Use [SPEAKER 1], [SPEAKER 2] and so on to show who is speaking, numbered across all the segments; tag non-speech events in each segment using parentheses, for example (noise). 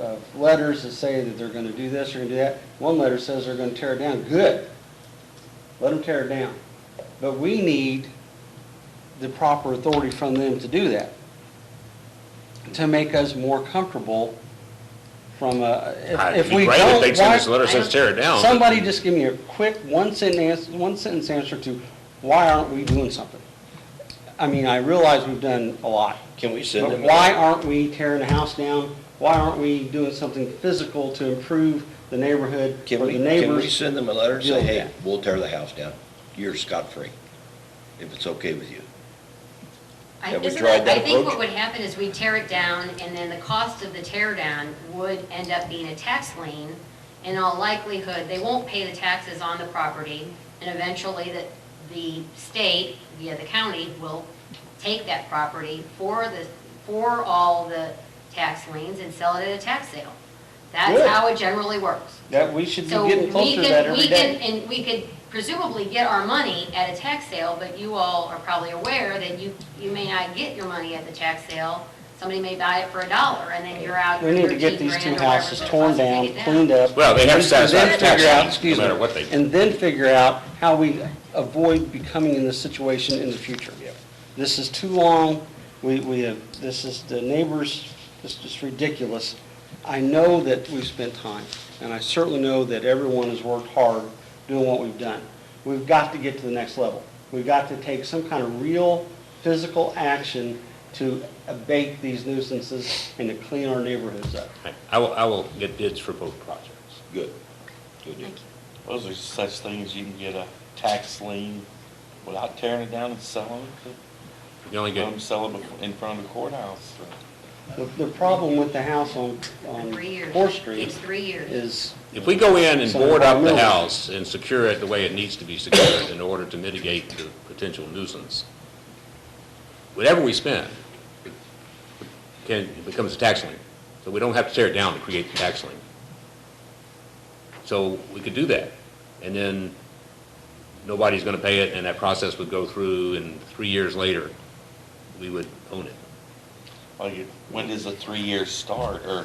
[SPEAKER 1] uh, letters that say that they're gonna do this, or gonna do that. One letter says they're gonna tear it down. Good. Let them tear it down. But we need the proper authority from them to do that, to make us more comfortable from, a-
[SPEAKER 2] I'd
[SPEAKER 1] if if
[SPEAKER 2] be
[SPEAKER 1] we
[SPEAKER 2] great
[SPEAKER 1] don't,
[SPEAKER 2] They'd send us a
[SPEAKER 1] why-
[SPEAKER 2] letter that says tear it down.
[SPEAKER 1] Somebody just give me a quick one sentence, one sentence answer to why aren't we doing something? I mean, I realize we've done a lot,
[SPEAKER 3] Can we send
[SPEAKER 1] but
[SPEAKER 3] them?
[SPEAKER 1] why aren't we tearing the house down? Why aren't we doing something physical to improve the neighborhood
[SPEAKER 3] Can
[SPEAKER 1] or
[SPEAKER 3] we,
[SPEAKER 1] the
[SPEAKER 3] can we
[SPEAKER 1] neighbors?
[SPEAKER 3] send them a letter and
[SPEAKER 1] deal
[SPEAKER 3] say,
[SPEAKER 1] with
[SPEAKER 3] hey,
[SPEAKER 1] that.
[SPEAKER 3] we'll tear the house down, you're scot-free, if it's okay with you?
[SPEAKER 4] I-
[SPEAKER 3] Have we
[SPEAKER 4] isn't
[SPEAKER 3] tried
[SPEAKER 4] that-
[SPEAKER 3] that
[SPEAKER 4] I think
[SPEAKER 3] approach?
[SPEAKER 4] what would happen is we tear it down, and then the cost of the tear down would end up being a tax lien. In all likelihood, they won't pay the taxes on the property, and eventually the, the state, via the county, will take that property for the, for all the tax liens and sell it at a tax sale. That's
[SPEAKER 1] Good.
[SPEAKER 4] how it generally works.
[SPEAKER 1] That we should be
[SPEAKER 4] So
[SPEAKER 1] getting
[SPEAKER 4] we
[SPEAKER 1] closer to
[SPEAKER 4] could-
[SPEAKER 1] that
[SPEAKER 4] we
[SPEAKER 1] every
[SPEAKER 4] could-
[SPEAKER 1] day.
[SPEAKER 4] And we could presumably get our money at a tax sale, but you all are probably aware that you, you may not get your money at the tax sale. Somebody may buy it for a dollar, and then you're out
[SPEAKER 1] We need to
[SPEAKER 4] 13
[SPEAKER 1] get these
[SPEAKER 4] grand
[SPEAKER 1] two
[SPEAKER 4] or whatever
[SPEAKER 1] houses
[SPEAKER 4] it
[SPEAKER 1] torn
[SPEAKER 4] costs to take
[SPEAKER 1] down,
[SPEAKER 4] it
[SPEAKER 1] cleaned up.
[SPEAKER 2] Well, they have to
[SPEAKER 1] and then
[SPEAKER 2] satisfy the
[SPEAKER 1] figure out-
[SPEAKER 2] tax lien,
[SPEAKER 1] excuse
[SPEAKER 2] no
[SPEAKER 1] me,
[SPEAKER 2] matter what they do.
[SPEAKER 1] And then figure out how we avoid becoming in this situation in the future. This is too long, we, we have, this is, the neighbors, this is ridiculous. I know that we've spent time, and I certainly know that everyone has worked hard doing what we've done. We've got to get to the next level. We've got to take some kind of real, physical action to abate these nuisances and to clean our neighborhoods up.
[SPEAKER 2] I will, I will get bids for both projects.
[SPEAKER 3] Good. Good deal.
[SPEAKER 4] Thank you.
[SPEAKER 5] Those are such things, you can get a tax lien without tearing it down and selling it,
[SPEAKER 2] You only
[SPEAKER 5] let them
[SPEAKER 2] get,
[SPEAKER 5] sell it in front of the courthouse.
[SPEAKER 1] The, the problem with the house on, on
[SPEAKER 4] Three years.
[SPEAKER 1] Fourth
[SPEAKER 4] Takes
[SPEAKER 1] Street
[SPEAKER 4] three years.
[SPEAKER 1] is,
[SPEAKER 2] if we go in and
[SPEAKER 1] So
[SPEAKER 2] board up the
[SPEAKER 1] environmental.
[SPEAKER 2] house and secure it the way it needs to be secured in order to mitigate the potential nuisance, whatever we spend, it can, it becomes a tax lien. So we don't have to tear it down to create the tax lien. So we could do that. And then nobody's going to pay it, and that process would go through, and three years later, we would own it.
[SPEAKER 5] Like, it- when does a three-year start, or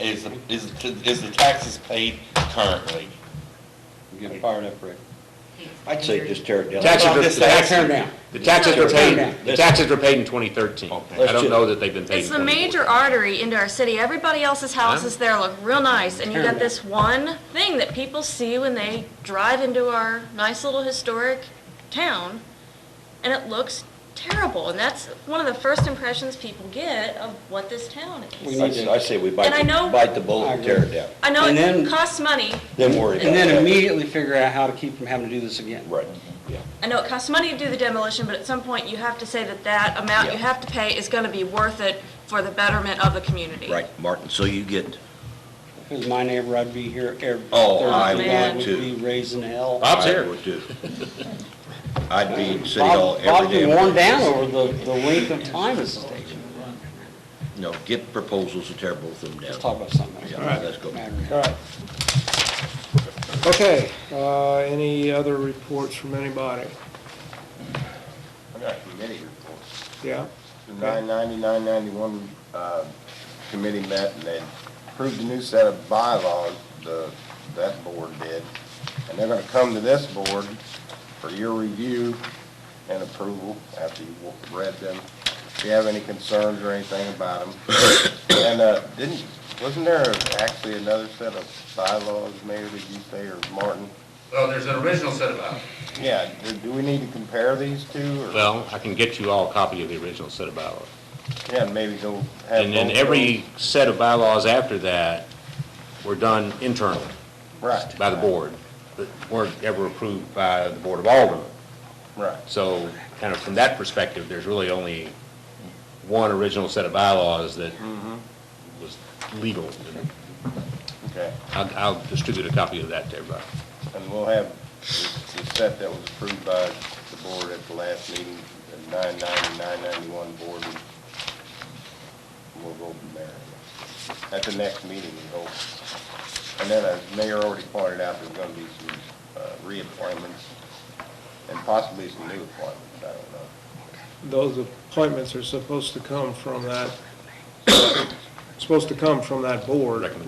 [SPEAKER 5] is, the- is, the- is the taxes paid currently?
[SPEAKER 3] Get fired up, Rick.
[SPEAKER 4] Takes
[SPEAKER 3] I'd say
[SPEAKER 4] years.
[SPEAKER 3] just tear it down.
[SPEAKER 2] Taxes
[SPEAKER 5] Well,
[SPEAKER 2] are,
[SPEAKER 5] this
[SPEAKER 2] the tax-
[SPEAKER 1] tear down.
[SPEAKER 2] the taxes were paid,
[SPEAKER 1] Listen.
[SPEAKER 2] the taxes were paid in 2013.
[SPEAKER 5] Okay.
[SPEAKER 2] I don't know that they've been paid
[SPEAKER 6] It's
[SPEAKER 2] in
[SPEAKER 6] the major
[SPEAKER 2] 2014.
[SPEAKER 6] artery into our city. Everybody else's houses there look real nice, and you got
[SPEAKER 1] Terrible.
[SPEAKER 6] this one thing that people see when they drive into our nice little historic town, and it looks terrible, and that's one of the first impressions people get of what this town
[SPEAKER 1] We
[SPEAKER 6] is.
[SPEAKER 1] need-
[SPEAKER 3] I s- I say we bite,
[SPEAKER 6] And I know-
[SPEAKER 3] the- bite the bullet
[SPEAKER 1] I
[SPEAKER 3] and tear it
[SPEAKER 1] agree.
[SPEAKER 3] down,
[SPEAKER 6] I know
[SPEAKER 1] And then-
[SPEAKER 6] it costs money,
[SPEAKER 3] then worry about it.
[SPEAKER 1] and then immediately figure out how to keep from having to do this again.
[SPEAKER 3] Right, yeah.
[SPEAKER 6] I know it costs money to do the demolition, but at some point, you have to say that that amount you
[SPEAKER 3] Yeah.
[SPEAKER 6] have to pay is gonna be worth it for the betterment of the community.
[SPEAKER 3] Right, Martin, so you get,
[SPEAKER 1] If it was my neighbor, I'd be here every
[SPEAKER 3] Oh, I
[SPEAKER 1] Thursday
[SPEAKER 6] would
[SPEAKER 1] night, would
[SPEAKER 3] too.
[SPEAKER 1] be raising hell.
[SPEAKER 2] Bob's
[SPEAKER 3] I
[SPEAKER 2] here.
[SPEAKER 3] would too. I'd be in City Hall
[SPEAKER 1] Bob,
[SPEAKER 3] every
[SPEAKER 1] Bob's
[SPEAKER 3] day.
[SPEAKER 1] been worn down over the, the length of time this is taking.
[SPEAKER 3] No, get proposals to tear both of them down.
[SPEAKER 1] Let's talk about something
[SPEAKER 3] Yeah,
[SPEAKER 1] else.
[SPEAKER 3] let's go.
[SPEAKER 7] All right. Okay, uh, any other reports from anybody?
[SPEAKER 8] I got committee reports.
[SPEAKER 7] Yeah?
[SPEAKER 8] The 990, 991 uh, committee met and they approved a new set of bylaws, the, that board did. And they're gonna come to this board for your review and approval after you've read them. If you have any concerns or anything about them. And uh, didn't, wasn't there actually another set of bylaws, Mayor, did you say, or Martin?
[SPEAKER 9] Well, there's an original set of bylaws.
[SPEAKER 8] Yeah, do- do we need to compare these two or?
[SPEAKER 2] Well, I can get you all a copy of the original set of bylaws.
[SPEAKER 8] Yeah, maybe go have.
[SPEAKER 2] And then
[SPEAKER 8] both
[SPEAKER 2] every set of bylaws after that were done internally
[SPEAKER 8] those. Right.
[SPEAKER 2] by the board, but weren't ever approved by the Board of Aldermen.
[SPEAKER 8] Right.
[SPEAKER 2] So kind of from that perspective, there's really only one original set of bylaws that was legal.
[SPEAKER 8] Okay,
[SPEAKER 2] I'll, I'll distribute a copy of that to everybody.
[SPEAKER 8] and we'll have the the set that was approved by the board at the last meeting, the 990, 991 board. and We'll go from there. At the next meeting, we hope. And then, as Mayor already pointed out, there's going to be some uh, reappointments and possibly some new appointments, I don't know.
[SPEAKER 7] Those appointments are (coughs) supposed to come from that
[SPEAKER 10] supposed to come from that board.
[SPEAKER 7] Recommendation.